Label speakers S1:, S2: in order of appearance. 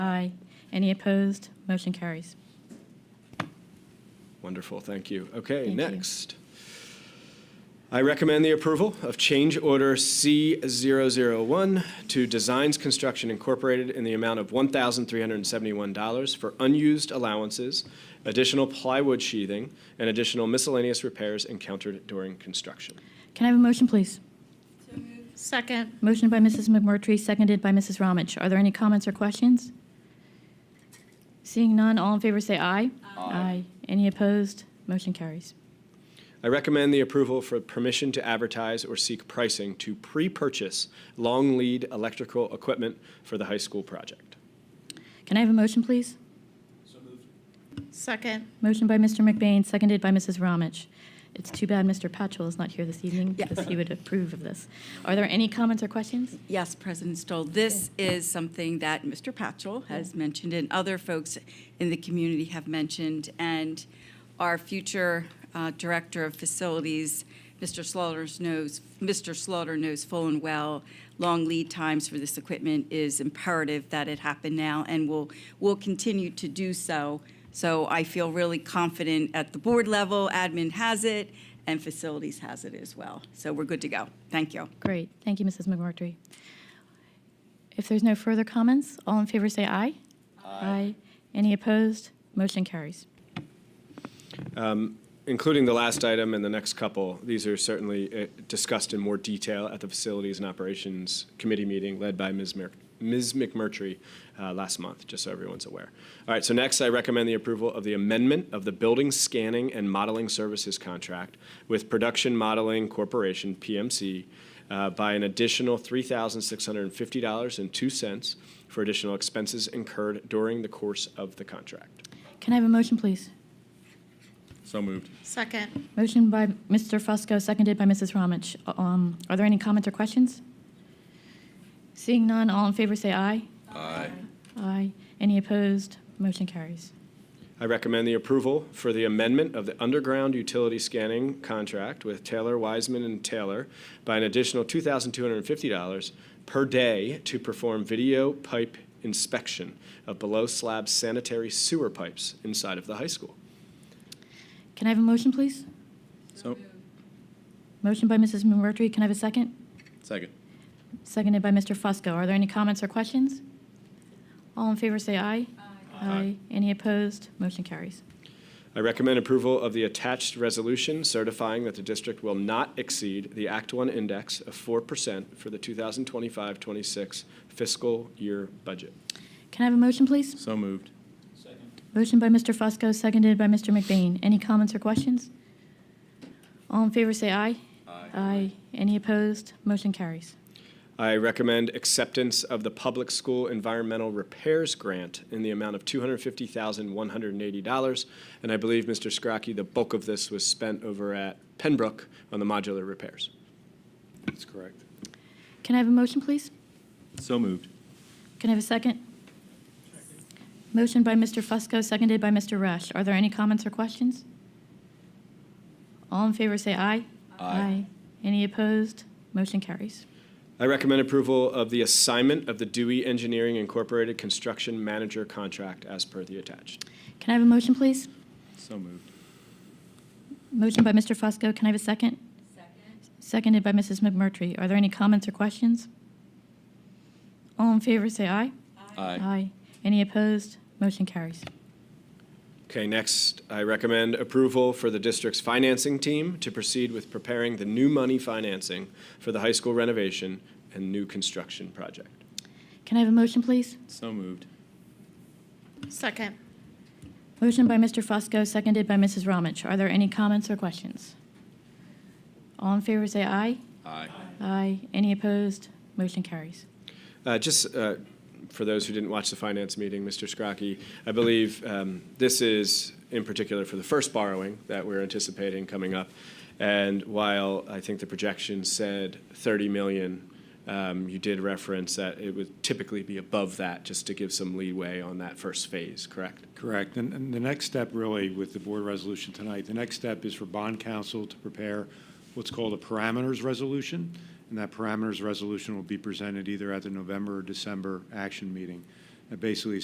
S1: Aye. Any opposed? Motion carries.
S2: Wonderful, thank you. Okay,
S1: Thank you.
S2: next. I recommend the approval of change order C001 to Designs Construction Incorporated in the amount of $1,371 for unused allowances, additional plywood sheathing, and additional miscellaneous repairs encountered during construction.
S1: Can I have a motion, please?
S3: Second.
S1: Motion by Mrs. McMurtry, seconded by Mrs. Ramich. Are there any comments or questions? Seeing none, all in favor say aye. Aye. Any opposed? Motion carries.
S2: I recommend the approval for permission to advertise or seek pricing to pre-purchase long lead electrical equipment for the high school project.
S1: Can I have a motion, please?
S3: Second.
S1: Motion by Mr. McBain, seconded by Mrs. Ramich. It's too bad Mr. Patchell is not here this evening
S4: Yeah.
S1: because he would approve of this. Are there any comments or questions?
S4: Yes, President Stoll, this is something that Mr. Patchell has mentioned and other folks in the community have mentioned. And our future uh, Director of Facilities, Mr. Slaughter knows, Mr. Slaughter knows full and well, long lead times for this equipment is imperative that it happen now and will, will continue to do so. So I feel really confident at the board level, admin has it, and facilities has it as well. So we're good to go. Thank you.
S1: Great. Thank you, Mrs. McMurtry. If there's no further comments, all in favor say aye. Aye. Any opposed? Motion carries.
S2: including the last item and the next couple, these are certainly uh, discussed in more detail at the Facilities and Operations Committee meeting led by Ms. Mer- Ms. McMurtry uh, last month, just so everyone's aware. All right, so next I recommend the approval of the amendment of the Building Scanning and Modeling Services Contract with Production Modeling Corporation, PMC, uh, by an additional $3,650.02 for additional expenses incurred during the course of the contract.
S1: Can I have a motion, please?
S5: So moved.
S3: Second.
S1: Motion by Mr. Fusco, seconded by Mrs. Ramich. Um, Are there any comments or questions? Seeing none, all in favor say aye.
S5: Aye.
S1: Aye. Any opposed? Motion carries.
S2: I recommend the approval for the amendment of the underground utility scanning contract with Taylor Wiseman and Taylor by an additional $2,250 per day to perform video pipe inspection of below slab sanitary sewer pipes inside of the high school.
S1: Can I have a motion, please?
S5: So,
S1: Motion by Mrs. McMurtry, can I have a second?
S5: second.
S1: Seconded by Mr. Fusco. Are there any comments or questions? All in favor say aye. Aye. Any opposed? Motion carries.
S2: I recommend approval of the attached resolution certifying that the district will not exceed the Act One index of 4% for the 2025-26 fiscal year budget.
S1: Can I have a motion, please?
S5: So moved.
S1: Motion by Mr. Fusco, seconded by Mr. McBain. Any comments or questions? All in favor say aye. Aye. Any opposed? Motion carries.
S2: I recommend acceptance of the Public School Environmental Repairs Grant in the amount of $250,180. And I believe, Mr. Scrocky, the bulk of this was spent over at Pembroke on the modular repairs.
S5: That's correct.
S1: Can I have a motion, please?
S5: So moved.
S1: Can I have a second? Motion by Mr. Fusco, seconded by Mr. Rush. Are there any comments or questions? All in favor say aye. Any opposed? Motion carries.
S2: I recommend approval of the assignment of the Dewey Engineering Incorporated Construction Manager contract as per the attached.
S1: Can I have a motion, please?
S5: So moved.
S1: Motion by Mr. Fusco, can I have a second? Seconded by Mrs. McMurtry. Are there any comments or questions? All in favor say aye. Any opposed? Motion carries.
S2: Okay, next, I recommend approval for the district's financing team to proceed with preparing the new money financing for the high school renovation and new construction project.
S1: Can I have a motion, please?
S5: So moved.
S3: Second.
S1: Motion by Mr. Fusco, seconded by Mrs. Ramich. Are there any comments or questions? All in favor say aye.
S5: Aye.
S1: Aye. Any opposed? Motion carries.
S2: Uh, Just uh, for those who didn't watch the finance meeting, Mr. Scrocky, I believe um, this is in particular for the first borrowing that we're anticipating coming up. And while I think the projection said 30 million, um, you did reference that it would typically be above that, just to give some leeway on that first phase, correct?
S6: Correct. And, and the next step really with the board resolution tonight, the next step is for bond counsel to prepare what's called a parameters resolution. And that parameters resolution will be presented either at the November or December action meeting. That basically